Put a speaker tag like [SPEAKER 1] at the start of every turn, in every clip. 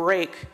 [SPEAKER 1] break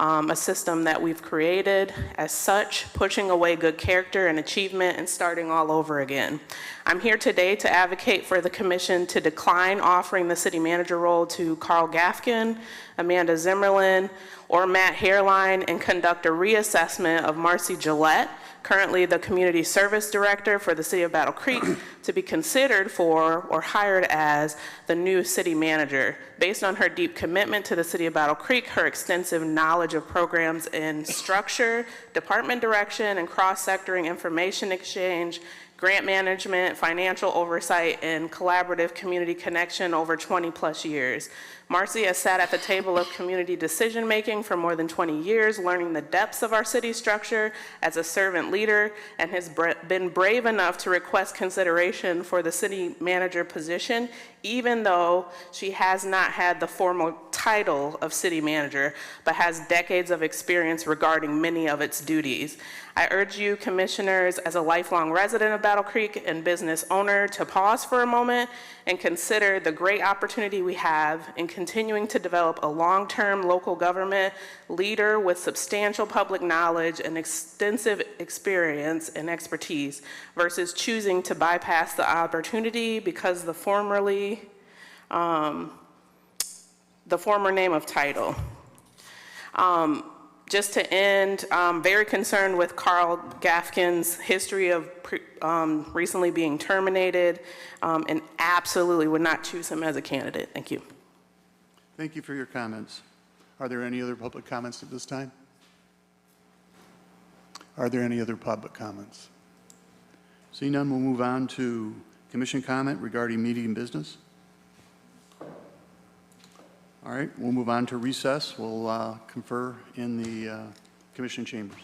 [SPEAKER 1] um, a system that we've created as such, pushing away good character and achievement and starting all over again. I'm here today to advocate for the commission to decline offering the city manager role to Carl Gafkin, Amanda Zimmerlin, or Matt Hairline and conduct a reassessment of Marcy Gillette, currently the community service director for the city of Battle Creek, to be considered for or hired as the new city manager. Based on her deep commitment to the city of Battle Creek, her extensive knowledge of programs in structure, department direction, and cross-sectoring information exchange, grant management, financial oversight, and collaborative community connection over 20-plus years. Marcy has sat at the table of community decision-making for more than 20 years, learning the depths of our city structure as a servant leader, and has bra- been brave enough to request consideration for the city manager position, even though she has not had the formal title of city manager, but has decades of experience regarding many of its duties. I urge you, commissioners, as a lifelong resident of Battle Creek and business owner, to pause for a moment and consider the great opportunity we have in continuing to develop a long-term local government leader with substantial public knowledge and extensive experience and expertise versus choosing to bypass the opportunity because the formerly, um, the former name of title Um, just to end, um, very concerned with Carl Gafkin's history of pre- um, recently being terminated, um, and absolutely would not choose him as a candidate. Thank you.
[SPEAKER 2] Thank you for your comments. Are there any other public comments at this time? Are there any other public comments? Seeing none, we'll move on to commission comment regarding meeting business. All right, we'll move on to recess. We'll uh, confer in the uh, commission chambers.